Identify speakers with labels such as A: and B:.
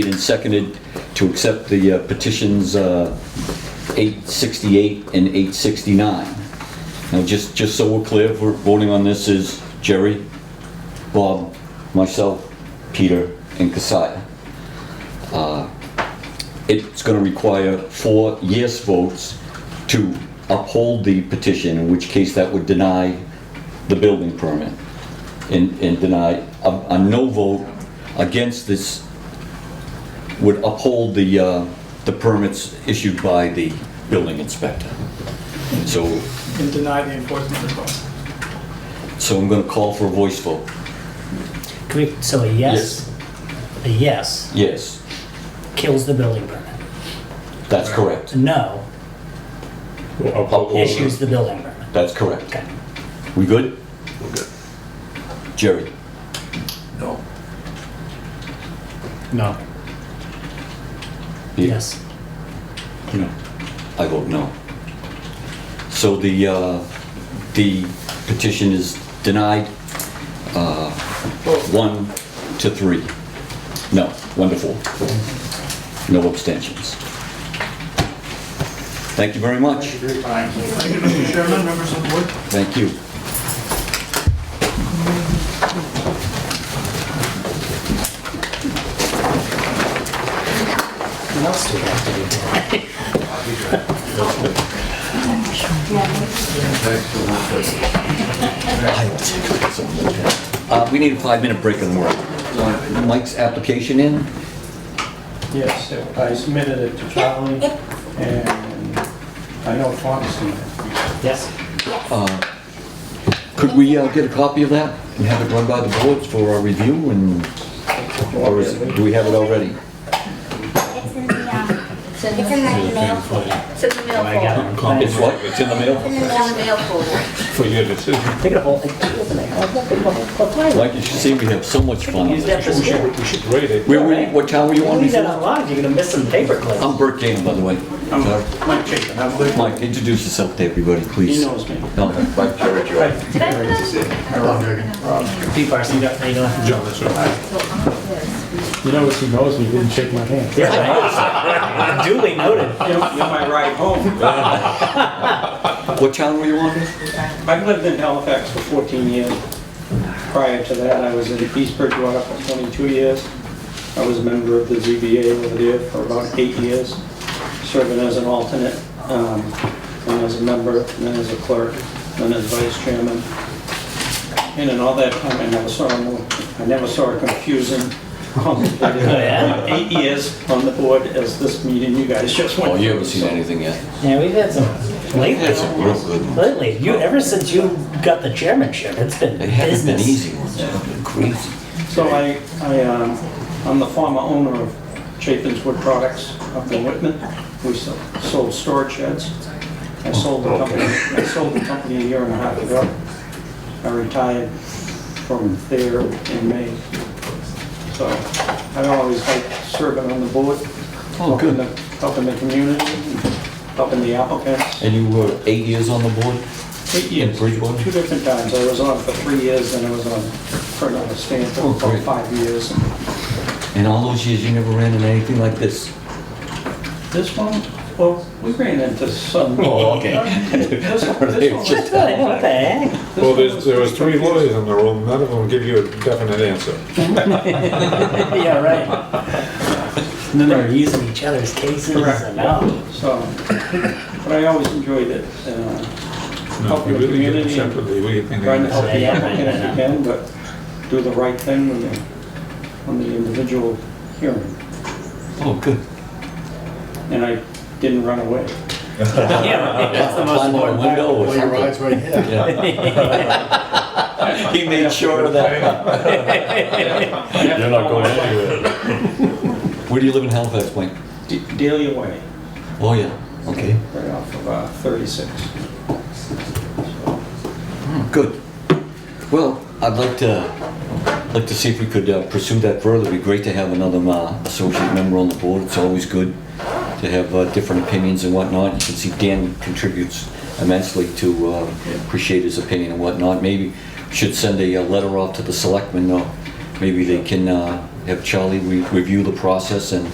A: and seconded to accept the uh, petitions uh, 868 and 869. Now, just, just so we're clear, if we're voting on this is Jerry, Bob, myself, Peter, and Kasia. Uh, It's gonna require four yes votes to uphold the petition, in which case that would deny the building permit and, and deny, a, a no vote against this would uphold the, uh, the permits issued by the building inspector. So,
B: and deny the enforcement request.
A: so I'm gonna call for a voice vote.
C: Can we- So a yes, a yes
A: Yes,
C: kills the building permit.
A: that's correct.
C: A no issues the building permit.
A: That's correct.
C: Okay.
A: We good? Jerry?
D: No.
C: No. Yes.
A: No. I vote no. So the, uh, the petition is denied, uh, one to three. No, one to four. No abstentions. Thank you very much.
B: Thank you, Mr. Chairman, members of the board.
A: Thank you.
C: What else do we have to do today?
A: Uh, We need a five-minute break and work. Mike's application in?
E: Yes, I submitted it to Charlie, and I know Tom's seen it.
C: Yes.
A: Could we uh, get a copy of that and have it run by the boards for our review and, or is, do we have it already?
F: It's in the, um, it's in the mail folder. Oh,
G: It's in the mail
C: I got
G: folder.
C: it.
A: It's what, it's in the mail?
F: In
G: It's
F: the
G: in
F: mail.
G: the mail folder.
D: For you to too.
C: Take it a whole, take it open it. I'll look at it the whole time.
A: Like you should see, we have so much fun on
C: Use that for
A: this.
C: some
A: board.
C: shit.
D: You should rate it.
A: Where, were you- what town were you Oh.
C: You
A: on
C: leave that
A: before?
C: unlocked, you're gonna miss some paper clips.
A: I'm Bert Gannon, by the way. Uh,
E: Mike Chapin, I'm the-
A: Mike, introduce yourself to everybody, please.
E: he knows me.
A: No.
G: Did I put it?
C: P. Parson, you got, you don't have to.
D: John, that's right.
E: You know, he knows me, he didn't shake my hand.
C: Yeah, right. Duly noted.
E: You're you're my ride home.
A: What town were you on?
E: I've lived in Halifax for 14 years. Prior to that, I was in East Bridgewater for 22 years. I was a member of the ZBA over there for about eight years, serving as an alternate, um, and as a member, and then as a clerk, and then as vice chairman. And in all that time, I never saw, a more- I never saw a confusing, complicated,
C: yeah?
E: eight years on the board as this meeting you guys just went
A: Oh,
E: through.
A: you haven't seen anything yet.
C: Yeah, we've had some lately,
A: That's a real good one.
C: lately, you, ever since you got the chairmanship, it's been
A: They haven't been
C: business.
A: easy ones, they've been crazy.
E: So I, I, um, I'm the former owner of Chapin's Wood Products up in Whitman. We so- sold storage sheds. I sold the company, I sold the company a year and a half ago. I retired from there in May. So I always like serving on the board.
A: Oh, good.
E: helping the- Helping the community, helping the applicants.
A: And you were eight years on the board?
E: Eight years,
A: Bridgewater?
E: two different times. I was on for three years, and I was on for another
A: Oh,
E: Stanford for
A: great.
E: five years.
A: And all those years, you never ran into anything like this?
E: This one, well, we ran into some.
A: Oh, okay.
E: This one, this one.
C: Good, what the heck?
E: this
D: Well,
E: one
D: there's,
E: was-
D: there was three lawyers in the room, none of them give you a definite answer.
C: Yeah, right. And then they're using each other's cases and, oh,
E: So, but I always enjoyed it, uh,
D: No,
E: helping
D: you
E: the
D: really did
E: community, and
D: separately, we think.
E: trying to help the
C: Yeah,
E: applicant if
C: right.
E: you can, but do the right thing when you, on the individual hearing.
A: Oh, good.
E: And I didn't run away.
C: yeah, right, that's the most
A: Climb out a
C: important.
A: window or something. Yeah. He made sure of that.
D: You're not going anywhere.
A: Where do you live in Halifax, Mike?
E: D- Daily away,
A: Oh, yeah, okay.
E: right off of uh, 36.
A: Good. Well, I'd like to, like to see if we could uh, pursue that further. It'd be great to have another uh, associate member on the board. It's always good to have uh, different opinions and whatnot. You can see Dan contributes immensely to uh, appreciate his opinion and whatnot. Maybe should send a uh, letter off to the selectmen or maybe they can uh, have Charlie re- review the process and